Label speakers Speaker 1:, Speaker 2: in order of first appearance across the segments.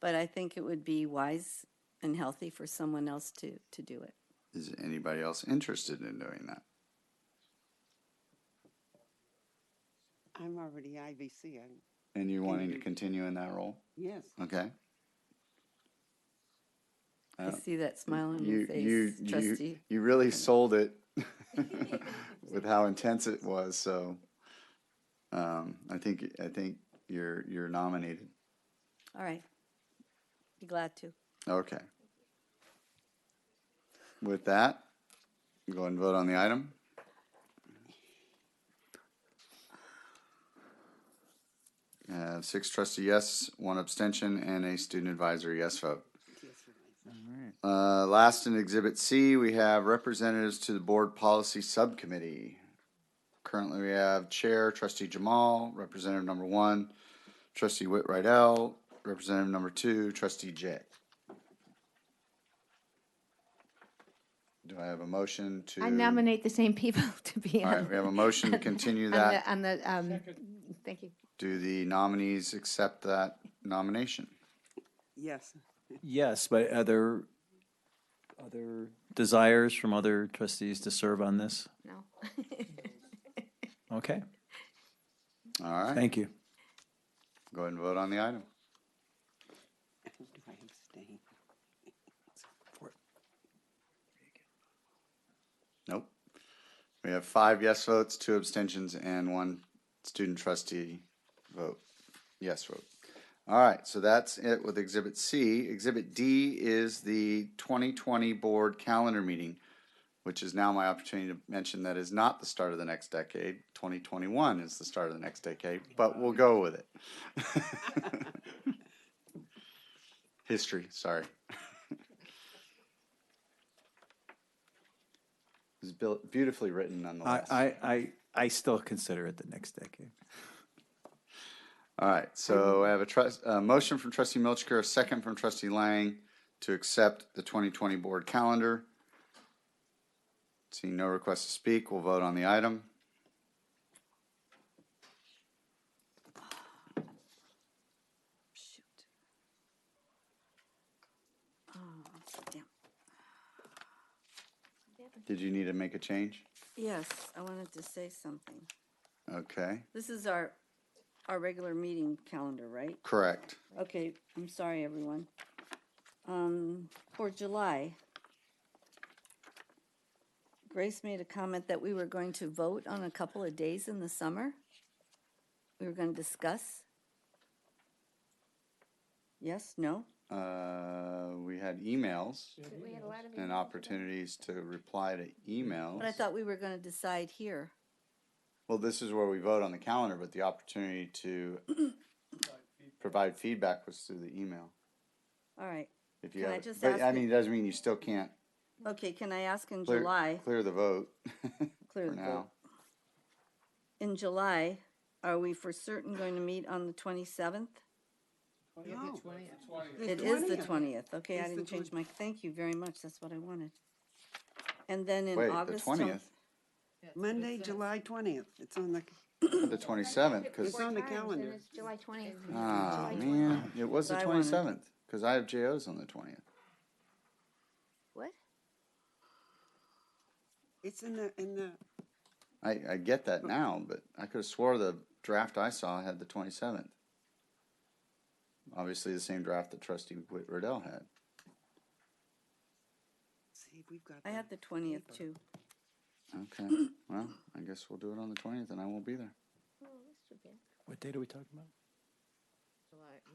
Speaker 1: But I think it would be wise and healthy for someone else to, to do it.
Speaker 2: Is anybody else interested in doing that?
Speaker 3: I'm already IVC. I'm,
Speaker 2: And you're wanting to
Speaker 3: you-
Speaker 2: continue in that role?
Speaker 3: yes.
Speaker 2: Okay.
Speaker 1: I
Speaker 2: Uh,
Speaker 1: see that smile on your
Speaker 2: You, you,
Speaker 1: face,
Speaker 2: you,
Speaker 1: trustee.
Speaker 2: you really sold it with how intense it was, so, um, I think, I think you're, you're nominated.
Speaker 1: All right. Be glad to.
Speaker 2: Okay. With that, go ahead and vote on the item. Uh, six trustee yes, one abstention, and a student advisor yes vote.
Speaker 3: yes, you're right.
Speaker 2: Uh, last in Exhibit C, we have representatives to the Board Policy Subcommittee. Currently, we have Chair Trustee Jamal, Representative Number One, Trustee Whit Rydell, Representative Number Two, Trustee Jay. Do I have a motion to?
Speaker 4: I nominate the same people to be
Speaker 2: All
Speaker 4: on.
Speaker 2: right, we have a motion to continue
Speaker 4: on
Speaker 2: that.
Speaker 4: the- On the, um, thank you.
Speaker 2: Do the nominees accept that nomination?
Speaker 3: Yes.
Speaker 5: Yes, but other, other desires from other trustees to serve on this?
Speaker 4: No.
Speaker 5: Okay,
Speaker 2: All right,
Speaker 5: thank you.
Speaker 2: go ahead and vote on the item.
Speaker 3: Who do I abstain?
Speaker 2: Nope. We have five yes votes, two abstentions, and one student trustee vote, yes vote. All right, so that's it with Exhibit C. Exhibit D is the 2020 Board Calendar Meeting, which is now my opportunity to mention that is not the start of the next decade. 2021 is the start of the next decade, but we'll go with it. History, sorry. It's built- beautifully written
Speaker 5: I,
Speaker 2: nonetheless.
Speaker 5: I, I, I still consider it the next decade.
Speaker 2: All right, so I have a trust, a motion from trustee Milchker, a second from trustee Lang to accept the 2020 board calendar. Seeing no requests to speak, we'll vote on the item.
Speaker 1: Shoot. Oh, damn.
Speaker 2: Did you need to make a change?
Speaker 1: Yes, I wanted to say something.
Speaker 2: Okay,
Speaker 1: This is our, our regular meeting calendar, right?
Speaker 2: correct.
Speaker 1: Okay, I'm sorry, everyone. Um, for July, Grace made a comment that we were going to vote on a couple of days in the summer. We were gonna discuss. Yes, no?
Speaker 2: Uh, we had emails and opportunities to reply to emails.
Speaker 1: But I thought we were gonna decide here.
Speaker 2: Well, this is where we vote on the calendar, but the opportunity to provide feedback was through the email.
Speaker 1: All right,
Speaker 2: If you
Speaker 1: Can I
Speaker 2: have,
Speaker 1: just
Speaker 2: but
Speaker 1: ask
Speaker 2: I
Speaker 1: if-
Speaker 2: mean, it doesn't mean you still can't
Speaker 1: okay, can I ask in
Speaker 2: Clear-
Speaker 1: July,
Speaker 2: Clear the vote
Speaker 1: clear
Speaker 2: for
Speaker 1: the
Speaker 2: now.
Speaker 1: vote. In July, are we for certain going to meet on the twenty-seventh?
Speaker 3: No.
Speaker 1: It is the
Speaker 3: 20th.
Speaker 1: twentieth, okay, I
Speaker 3: It's the
Speaker 1: didn't change my, thank you very much, that's what I wanted. And then in
Speaker 2: Wait, the
Speaker 1: August. tell-
Speaker 2: twentieth,
Speaker 3: Monday, July 20th. It's on the,
Speaker 2: the twenty-seventh, because,
Speaker 3: It's on the calendar.
Speaker 4: It's July twentieth.
Speaker 2: ah, man, it was the
Speaker 1: But I wanted-
Speaker 2: twenty-seventh, because I have JOs on the twentieth.
Speaker 4: What?
Speaker 3: it's in the, in the,
Speaker 2: I, I get that now, but I could have swore the draft I saw had the twenty-seventh. Obviously, the same draft that trustee Whit Riddell had.
Speaker 3: see, we've got.
Speaker 1: I had the twentieth too,
Speaker 2: Okay, well, I guess we'll do it on the twentieth, and I won't be there.
Speaker 4: Oh,
Speaker 5: What date are we talking about?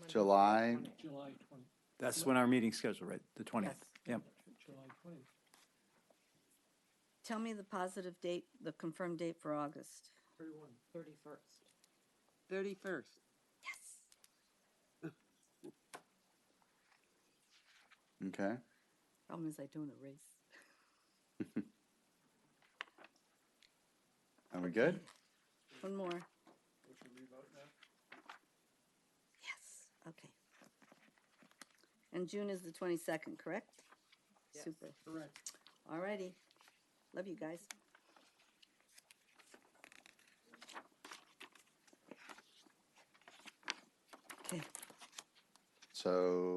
Speaker 2: July,
Speaker 6: July twenty,
Speaker 5: That's when our meeting's scheduled, right? The twentieth? Yep.
Speaker 6: July twenty.
Speaker 1: tell me the positive date, the confirmed date for August.
Speaker 3: Thirty-first.
Speaker 2: okay,
Speaker 1: Problem is I don't erase.
Speaker 2: are we good?
Speaker 1: One more. Yes, okay. And June is the twenty-second, correct? Super.
Speaker 6: Correct.
Speaker 1: Alrighty. Love you guys. Okay.
Speaker 2: So